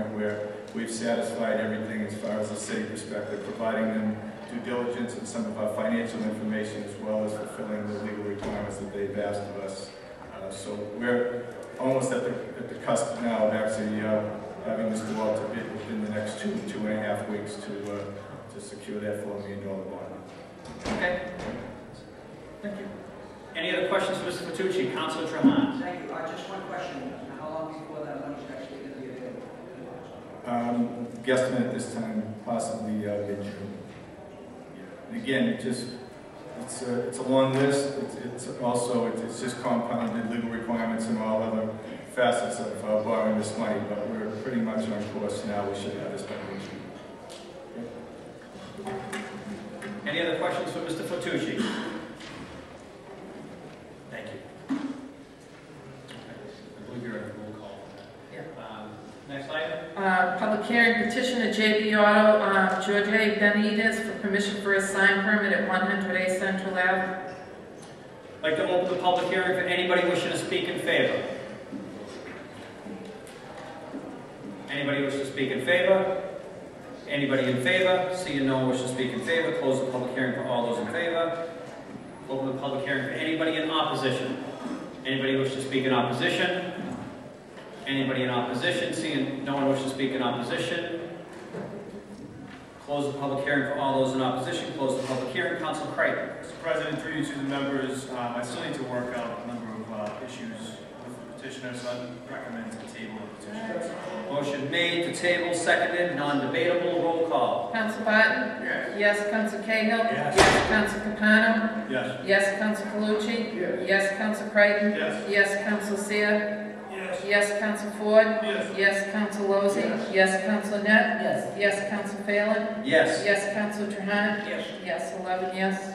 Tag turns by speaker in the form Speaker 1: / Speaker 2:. Speaker 1: where we've satisfied everything as far as the city perspective, providing them due diligence and some of our financial information as well as fulfilling the legal requirements that they've asked of us. Uh, So we're almost at the, at the cusp now of actually uh, having this go out to bid within the next two, two and a half weeks to, uh, to secure that four million dollar bond.
Speaker 2: Okay. Thank you. Any other questions for Mr. Fatucci? Counselor Trahan?
Speaker 3: Thank you. Uh, Just one question. How long before that money's actually going to be available?
Speaker 1: Um, guesstimate at this time, possibly uh, mid-June. And Again, it just, it's a, it's a long list, it's, it's also, it's- it's just compounded legal requirements and all other facets of uh, borrowing this money, but we're pretty much on course now, we should have this by mid-June.
Speaker 2: Any other questions for Mr. Fatucci? Thank you. I believe you're in roll call.
Speaker 4: Yeah.
Speaker 2: Um, Next item?
Speaker 4: Uh, Public hearing petition to JB Auto, uh, George A. Benitez for permission for a sign permit at 100A Central Ave.
Speaker 2: I'd like to open the public hearing for anybody wishing to speak in favor. Anybody wish to speak in favor? Anybody in favor? Seeing no one wish to speak in favor, close the public hearing for all those in favor. Open the public hearing for anybody in opposition. Anybody wish to speak in opposition? Anybody in opposition? Seeing no one wish to speak in opposition. Close the public hearing for all those in opposition. Close the public hearing. Council Creighton.
Speaker 5: Mr. President, through you to the members, um, I still need to work out a number of uh, issues with the petitioner, so I'd recommend to table the petition.
Speaker 2: Motion made to table, seconded, non-debatable, roll call.
Speaker 4: Counsel Barton?
Speaker 5: Yes.
Speaker 4: Yes, Counsel Cahill?
Speaker 5: Yes.
Speaker 4: Counsel Capano?
Speaker 5: Yes.
Speaker 4: Yes, Counsel Calucci? Yes. Counsel Creighton?
Speaker 5: Yes.
Speaker 4: Yes, Counsel Seer?
Speaker 5: Yes.
Speaker 4: Yes, Counsel Ford?
Speaker 5: Yes.
Speaker 4: Yes, Counsel Lozey? Yes. Counsel Net? Yes. Yes, Counsel Phelan?
Speaker 2: Yes.
Speaker 4: Yes, Counsel Trahan?
Speaker 2: Yes.
Speaker 4: Yes, 11 yes.